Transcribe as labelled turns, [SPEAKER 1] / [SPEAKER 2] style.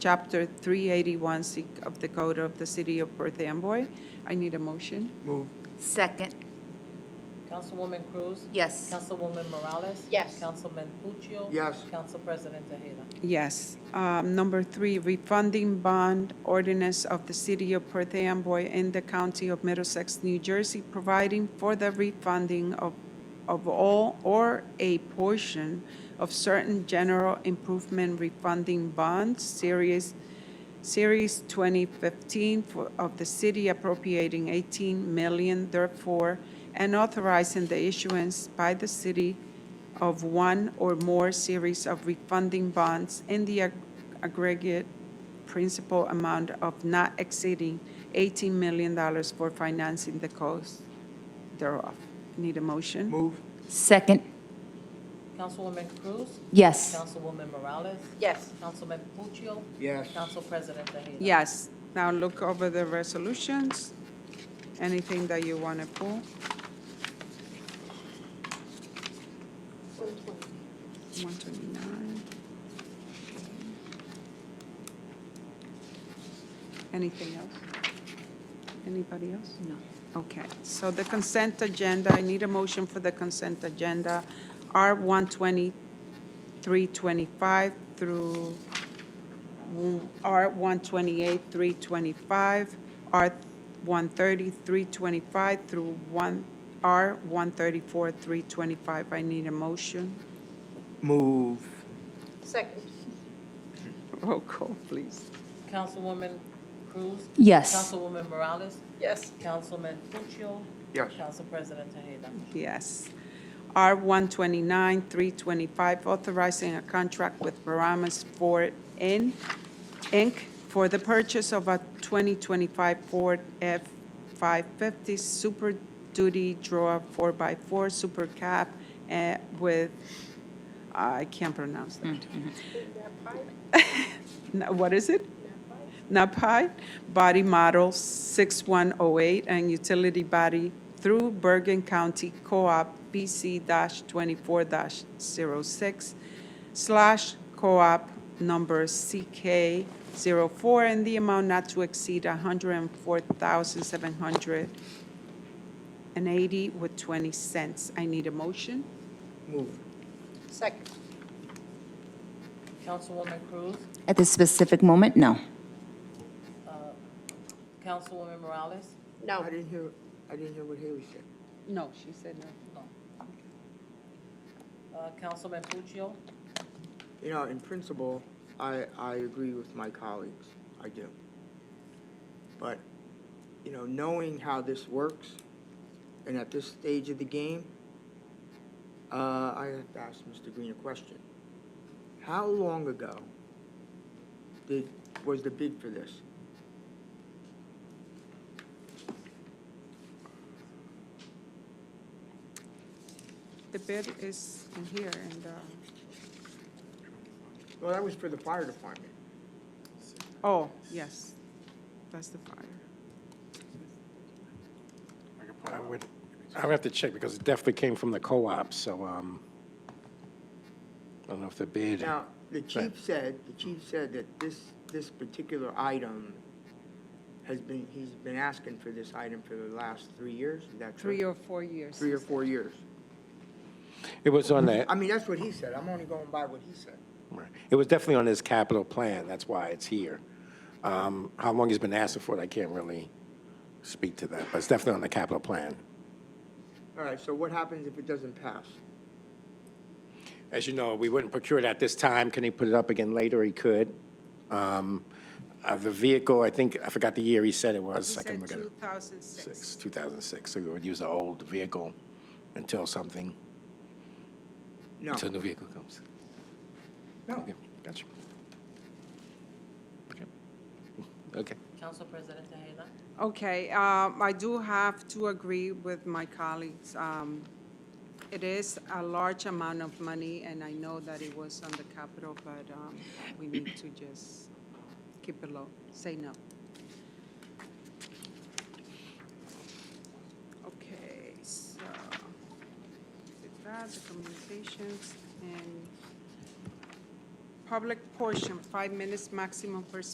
[SPEAKER 1] Chapter 381 C of the Code of the City of Perth Amboy. I need a motion.
[SPEAKER 2] Move,
[SPEAKER 3] Second,
[SPEAKER 4] Councilwoman Cruz?
[SPEAKER 3] yes.
[SPEAKER 4] Councilwoman Morales?
[SPEAKER 5] Yes.
[SPEAKER 4] Councilman Puccio?
[SPEAKER 2] Yes.
[SPEAKER 4] Council President Tejeda?
[SPEAKER 1] Yes. Um, Number three, refunding bond ordinance of the City of Perth Amboy in the County of Middlesex, New Jersey, providing for the refunding of, of all or a portion of certain general improvement refunding bonds, Series, Series 2015 for- of the city appropriating 18 million therefore, and authorizing the issuance by the city of one or more series of refunding bonds in the ag- aggregate principal amount of not exceeding $18 million for financing the cost thereof. Need a motion?
[SPEAKER 2] move,
[SPEAKER 3] Second,
[SPEAKER 4] Councilwoman Cruz?
[SPEAKER 3] yes.
[SPEAKER 4] Councilwoman Morales?
[SPEAKER 5] Yes.
[SPEAKER 4] Councilman Puccio?
[SPEAKER 2] yes.
[SPEAKER 4] Council President Tejeda?
[SPEAKER 1] Yes. Now look over the resolutions. Anything that you want to pull? One twenty-nine. Anything else? Anybody else?
[SPEAKER 3] No.
[SPEAKER 1] Okay, so the consent agenda, I need a motion for the consent agenda, R one twenty-three twenty-five through R one twenty-eight, three twenty-five, R one thirty, three twenty-five through one, R one thirty-four, three twenty-five. I need a motion.
[SPEAKER 2] Move,
[SPEAKER 5] Second.
[SPEAKER 1] Roll call, please.
[SPEAKER 4] Councilwoman Cruz?
[SPEAKER 3] Yes.
[SPEAKER 4] Councilwoman Morales?
[SPEAKER 5] Yes.
[SPEAKER 4] Councilman Puccio?
[SPEAKER 2] yes.
[SPEAKER 4] Council President Tejeda?
[SPEAKER 1] Yes. R one twenty-nine, three twenty-five, authorizing a contract with Paramus Ford In- Inc. for the purchase of a twenty twenty-five Ford F five fifty Super Duty Draw four x four Super Cab eh, with, I can't pronounce that. No, What is it? NAPI body model 6108 and utility body through Bergen County Co-op BC-24-06 slash co-op number CK04 and the amount not to exceed 104,780 with 20 cents. I need a motion.
[SPEAKER 2] Move,
[SPEAKER 5] Second.
[SPEAKER 4] Councilwoman Cruz?
[SPEAKER 3] At this specific moment, no.
[SPEAKER 4] uh, Councilwoman Morales?
[SPEAKER 5] No.
[SPEAKER 2] I didn't hear, I didn't hear what Haley said.
[SPEAKER 1] No, she said no.
[SPEAKER 4] Uh, Councilman Puccio?
[SPEAKER 2] You know, in principle, I, I agree with my colleagues, I do. But, you know, knowing how this works, and at this stage of the game, uh, I have to ask Mr. Green a question. How long ago did, was the bid for this?
[SPEAKER 1] The bid is in here and, uh,
[SPEAKER 2] Well, that was for the fire department.
[SPEAKER 1] oh, yes, that's the fire.
[SPEAKER 6] I would, I would have to check, because it definitely came from the co-op, so, um, I don't know if the bid,
[SPEAKER 2] Now, the
[SPEAKER 6] Right.
[SPEAKER 2] chief said, the chief said that this, this particular item has been, he's been asking for this item for the last three years, is that true?
[SPEAKER 1] Three or four years.
[SPEAKER 2] Three or four years.
[SPEAKER 6] it was on the,
[SPEAKER 2] I mean, that's what he said, I'm only going by what he said.
[SPEAKER 1] Mm-hmm.
[SPEAKER 6] it was definitely on his capital plan, that's why it's here. Um, how long he's been asking for it, I can't really speak to that, but it's definitely on the capital plan.
[SPEAKER 2] All right, so what happens if it doesn't pass?
[SPEAKER 6] As you know, we wouldn't procure it at this time. Can he put it up again later? He could. Um, uh, The vehicle, I think, I forgot the year he said it was.
[SPEAKER 1] He
[SPEAKER 6] I can
[SPEAKER 1] said
[SPEAKER 6] look at it.
[SPEAKER 1] 2006.
[SPEAKER 6] 2006, so we would use the old vehicle until something,
[SPEAKER 2] No,
[SPEAKER 6] until the vehicle comes.
[SPEAKER 2] no,
[SPEAKER 6] Okay, gotcha. Okay. Okay.
[SPEAKER 4] Council President Tejeda?
[SPEAKER 1] Okay, um, I do have to agree with my colleagues. Um, It is a large amount of money, and I know that it was on the capital, but um, we need to just keep it low, say no. Okay, so, with that, the communications and public portion, five minutes maximum per